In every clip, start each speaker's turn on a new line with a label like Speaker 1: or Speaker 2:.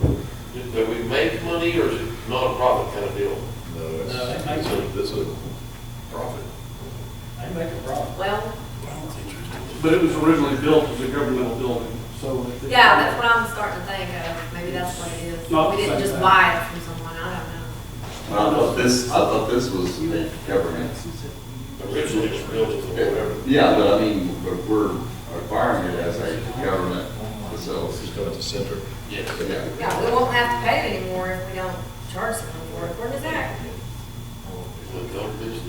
Speaker 1: Do do we make money or is it not a profit kind of deal?
Speaker 2: No,
Speaker 3: No,
Speaker 2: that's,
Speaker 3: it might
Speaker 2: that's a, that's a profit.
Speaker 3: They make a profit.
Speaker 4: Well,
Speaker 5: But it was originally built as a governmental building, so. it-
Speaker 4: yeah, that's what I'm starting to think of, maybe that's what it is.
Speaker 5: Not
Speaker 4: We
Speaker 5: the
Speaker 4: didn't
Speaker 5: same
Speaker 4: just
Speaker 5: thing.
Speaker 4: buy it from someone, I don't know.
Speaker 6: I thought this, I thought this was government.
Speaker 1: Originally it was built as a whatever.
Speaker 6: Yeah, but I mean, but we're acquiring it as a government
Speaker 2: It's
Speaker 6: facility.
Speaker 2: just going to center.
Speaker 1: Yes.
Speaker 6: Yeah.
Speaker 4: Yeah, we won't have to pay it anymore if we don't charge someone for it, where does that?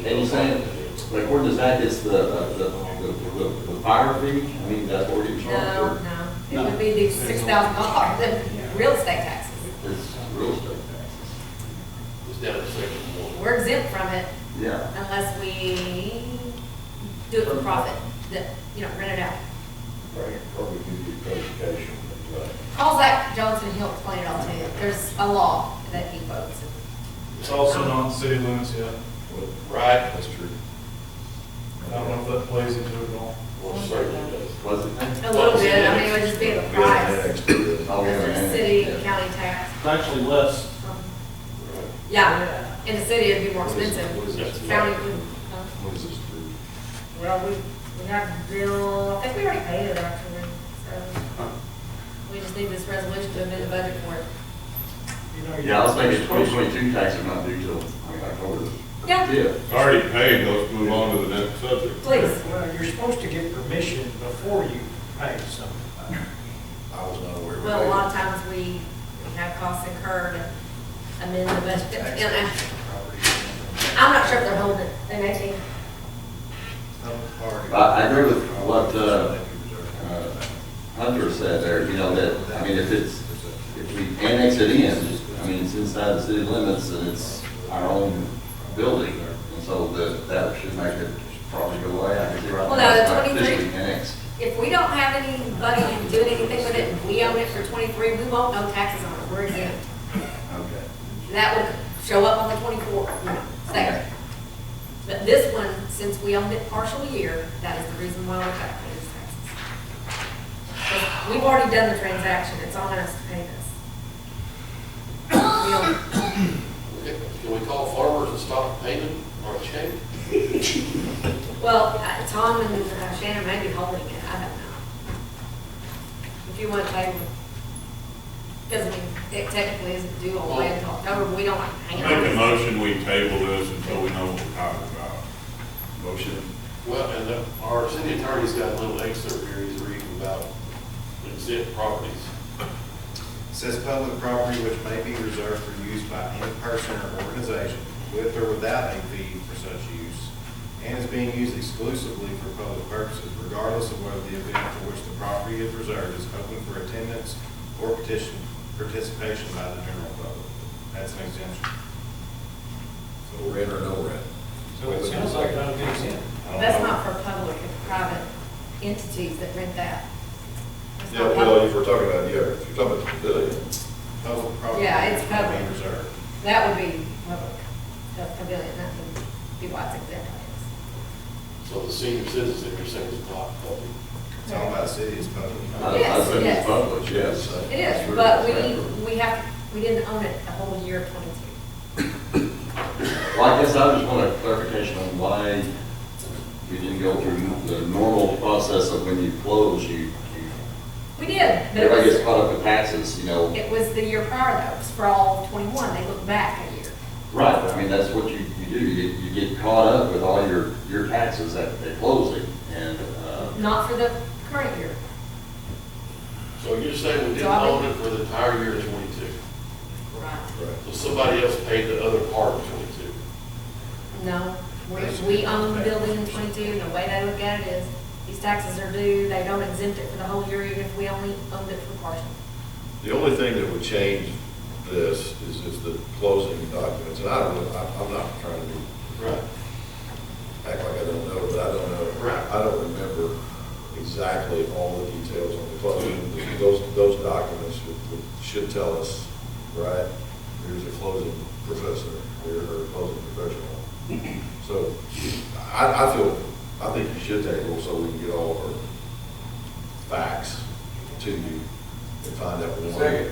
Speaker 6: And you're saying, like, where does that, is the, uh, the, the, the- the fire fee? I mean, that's what you're
Speaker 4: No,
Speaker 6: charging
Speaker 4: no, it would be the six thousand dollars in real estate taxes,
Speaker 6: for. It's real estate taxes.
Speaker 1: It's down to section one.
Speaker 4: we're exempt from it
Speaker 6: Yeah.
Speaker 4: unless we do it for profit, that, you know, rent it out.
Speaker 2: Probably give you clarification, like,
Speaker 4: Call Zach Johnson, he'll explain it all to you, there's a law that he quotes.
Speaker 7: It's also not in city limits yet.
Speaker 2: what,
Speaker 1: Right?
Speaker 2: that's true.
Speaker 7: I
Speaker 3: Oh,
Speaker 7: don't know if that plays into it at all.
Speaker 1: Well, certainly does.
Speaker 6: Was it? then?
Speaker 4: A little bit, I mean, it would just be the
Speaker 2: We haven't
Speaker 4: price.
Speaker 2: annexed it yet.
Speaker 6: Oh, we haven't
Speaker 4: It's a
Speaker 6: had it.
Speaker 4: city,
Speaker 6: Yeah.
Speaker 4: county tax.
Speaker 5: It's actually less.
Speaker 4: Yeah, in the city, it'd be more
Speaker 2: What is- what
Speaker 4: expensive.
Speaker 2: is this?
Speaker 4: County would. uh,
Speaker 2: What is this through?
Speaker 4: Well, we, we have bill, I think we already paid it actually, so. We just need this resolution to amend the budget for it.
Speaker 3: You know, you-
Speaker 6: Yeah, I was thinking twenty twenty-two taxes are not due till, I mean, October.
Speaker 4: Yeah.
Speaker 8: Already paid, let's move on to the next subject.
Speaker 4: Please.
Speaker 3: Well, you're supposed to get permission before you pay something.
Speaker 2: I was not aware of that.
Speaker 4: Well, a lot of times we we have costs incurred and amend the budget. And I- I'm not sure if they're holding it, they may be.
Speaker 6: I, I agree with what, uh, uh, Hunter said there, you know, that, I mean, if it's, if we annex it in, I mean, it's inside the city limits and it's our own building. And so that, that should make it probably go away. I could see right
Speaker 4: Well,
Speaker 6: now
Speaker 4: no,
Speaker 6: it's
Speaker 4: the
Speaker 6: not
Speaker 4: 23
Speaker 6: officially annexed.
Speaker 4: If we don't have anybody doing anything with it, and we own it for 23, we won't know taxes on it, we're exempt.
Speaker 6: Okay.
Speaker 4: That will show up on the 24th, you know, second. But this one, since we owned it partial year, that is the reason why we're calculating these taxes. But We've already done the transaction, it's on us to pay this. We don't-
Speaker 1: Okay, Can we call farmers and stop payment or a check?
Speaker 4: Well, uh, Tom and uh, Shannon may be holding it, I don't know. If you want to table it, because I mean, it technically isn't due all the way until October, we don't hang on.
Speaker 8: Make a motion, we table this until we know what we're talking about.
Speaker 6: Motion.
Speaker 1: Well, and uh, our city attorney's got a little excerpt here he's reading about exempt properties.
Speaker 9: Says public property which may be reserved for use by any person or organization with or without a fee for such use, and is being used exclusively for public purposes, regardless of whether the event for which the property is reserved is open for attendance or petition, participation by the general public. That's an exemption.
Speaker 2: So rent or no rent?
Speaker 3: So it sounds like that'll be exempt.
Speaker 9: I don't
Speaker 4: That's
Speaker 9: know.
Speaker 4: not for public, it's private entities that rent that. It's
Speaker 2: Yeah,
Speaker 4: not
Speaker 2: well,
Speaker 4: public.
Speaker 2: if we're talking about, yeah, if you're talking about the pavilion,
Speaker 9: Public property.
Speaker 4: Yeah, it's
Speaker 9: may be
Speaker 4: public.
Speaker 9: Reserved.
Speaker 4: That would be public, the pavilion, that would be what's exempt.
Speaker 1: So the senior citizen, you're saying is not public.
Speaker 9: It's all about city, it's public.
Speaker 6: I, I
Speaker 4: Yes,
Speaker 6: said
Speaker 4: yes.
Speaker 6: Uh, it's public, yes.
Speaker 4: I guess. It is, but we, we have, we didn't own it the whole year of twenty-two.
Speaker 6: Well, I guess I just want a clarification on why we didn't go through the normal process of when you close, you, you
Speaker 4: We did, but it
Speaker 6: Everybody gets
Speaker 4: was,
Speaker 6: caught up in taxes, you know.
Speaker 4: it was the year prior though, it was for all of twenty-one, they look back a year.
Speaker 6: Right. I mean, that's what you, you do, you get, you get caught up with all your, your taxes at, at closing, and, uh,
Speaker 4: Not for the current year,
Speaker 1: So you're saying we didn't
Speaker 4: So I
Speaker 1: own
Speaker 4: would-
Speaker 1: it for the entire year of twenty-two?
Speaker 4: right?
Speaker 2: right?
Speaker 1: So somebody else paid the other part of twenty-two?
Speaker 4: No, we, we own the building in twenty-two, and the way they look at it is, these taxes are due, they don't exempt it for the whole year, even if we only owned it for partial.
Speaker 2: The only thing that would change this is, is the closing documents, and I don't know, I- I'm not trying to
Speaker 1: Right.
Speaker 2: act like I don't know, but I don't know.
Speaker 1: Right.
Speaker 2: I don't remember exactly all the details on the closing. Those, those documents should- should tell us, right, here's a closing professor, here's a closing professional. So I, I feel, I think you should table so we can get all of our facts to you and find out. Second.